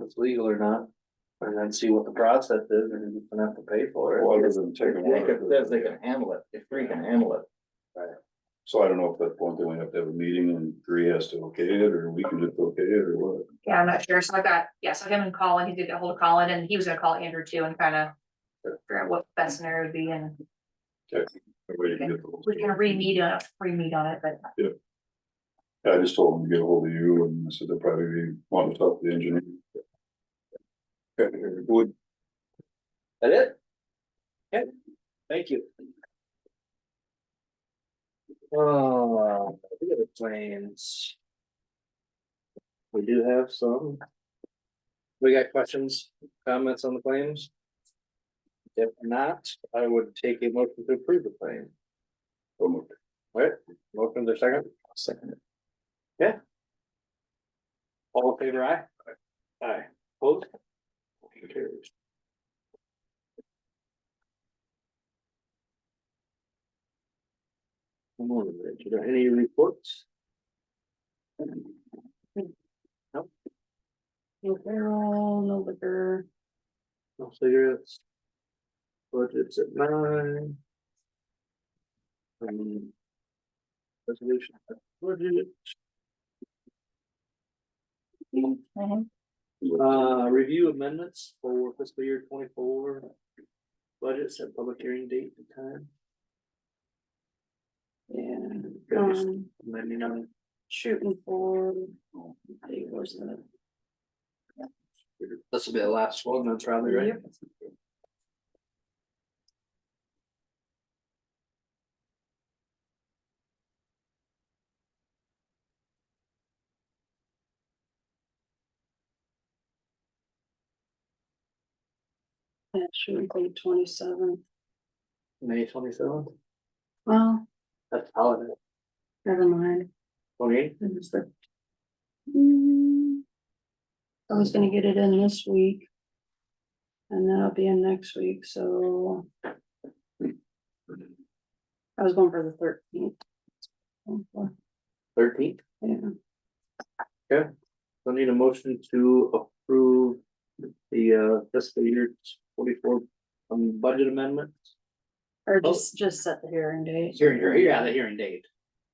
it's legal or not. And then see what the process is and you can have to pay for it. Well, it doesn't take a They can, while. says they can handle it, if three can handle it, So I don't know if that's one thing we have to have a meeting and three has to okay it, or we can just okay it, or what. Yeah, I'm not sure. So I got, yeah, so him and Colin, he did get hold of Colin and he was gonna call Andrew too and kind of. Figure out what the best scenario would be and That way you can get the whole we're gonna re-meet on, it- re-meet on it, but I just told them to get a hold of you and I said they'll probably be wanting to talk to the engineer. Okay, would, That it? Okay, thank you. Oh, we have the plans. We do have some. We got questions, comments on the claims? If not, I would take a motion to approve the claim. um, Right, motion to second, second, all in favor, aye? Aye. Both? Carries. Come on, Rich, are there any reports? no barrel, no liquor. No cigarettes. Budgets at nine. Um, Resolution. at budget. Uh, review amendments for fiscal year twenty-four. Budgets at public hearing date and time. And. just Um, Let me know. shooting for, I think it was the, This will be the last one, that's probably right. that should include twenty-seven. May twenty-seventh, Well, that's holiday, never mind, twenty-eighth, it was the. Hmm. I was gonna get it in this week. And then I'll be in next week, so. I was going for the thirteenth. thirteenth. Yeah, I need a motion to approve the uh fiscal year twenty-four um budget amendment. or just, just set the hearing date Hearing, yeah, the hearing date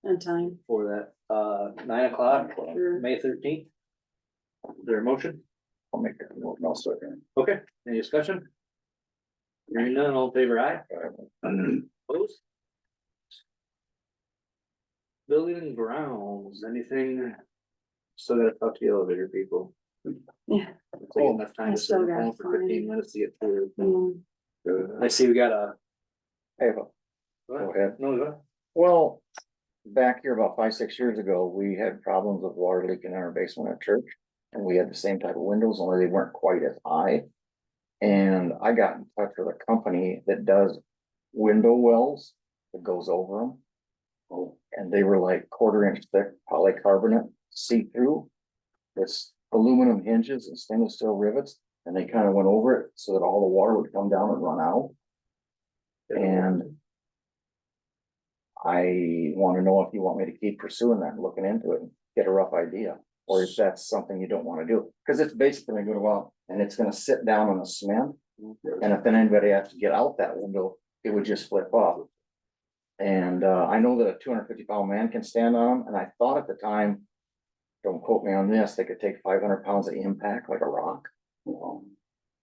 and time, for that, uh, nine o'clock, Sure. May thirteenth. Is there a motion? I'll make it, I'll second. Okay, any discussion? Hearing none, all in favor aye. Opposed? Building and grounds, anything? Still gotta talk to the elevator people. yeah. It's like enough time I to sit on the still gotta phone for fifteen find- minutes to get through. hmm. I see we got a. Hey, Go ahead. No, go ahead. well, back here about five, six years ago, we had problems with water leaking in our basement at church. And we had the same type of windows, only they weren't quite as high. And I got in touch with a company that does window wells that goes over them. Oh, and they were like quarter inch thick polycarbonate, see-through. This aluminum hinges and stainless steel rivets, and they kind of went over it so that all the water would come down and run out. And. I want to know if you want me to keep pursuing that, and looking into it, and get a rough idea, or if that's something you don't want to do. Cause it's basically gonna go out and it's gonna sit down on the cement. And if then anybody has to get out that window, it would just flip off. And uh, I know that a two hundred fifty pound man can stand on them, and I thought at the time. Don't quote me on this, they could take five hundred pounds of impact like a rock. um,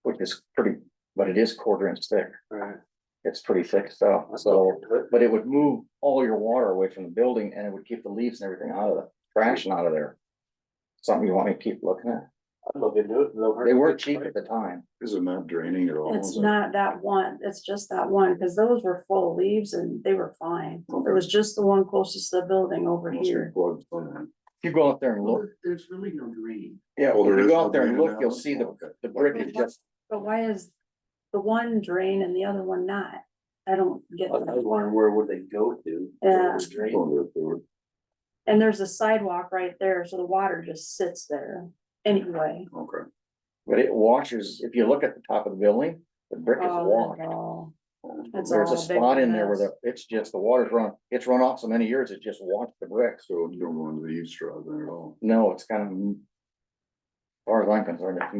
Which is pretty, but it is quarter inch thick, Alright. it's pretty thick stuff, so, but it would move all your water away from the building and it would keep the leaves and everything out of the trash and out of there. Something you want me to keep looking at, I'd love to do it. no hurt. they were cheap at the time, is it not draining at all? It's not that one, it's just that one, because those were full of leaves and they were fine. There was just the one closest to the building over here. if you go out there and look, There's really no green. yeah, if you go out there and look, you'll see the, the brick is just But why is the one drain and the other one not? I don't I get was that. wondering where would they go to? Yeah. Drain. And there's a sidewalk right there, so the water just sits there anyway. Okay. But it washes, if you look at the top of the building, the brick is Oh, washed. that's all. It's There's a all big spot in there where mess. the, it's just, the water's run, it's run off so many years, it just washed the bricks. So you don't want to eavesdrop then at all? No, it's kind of. as Far as I'm concerned, it's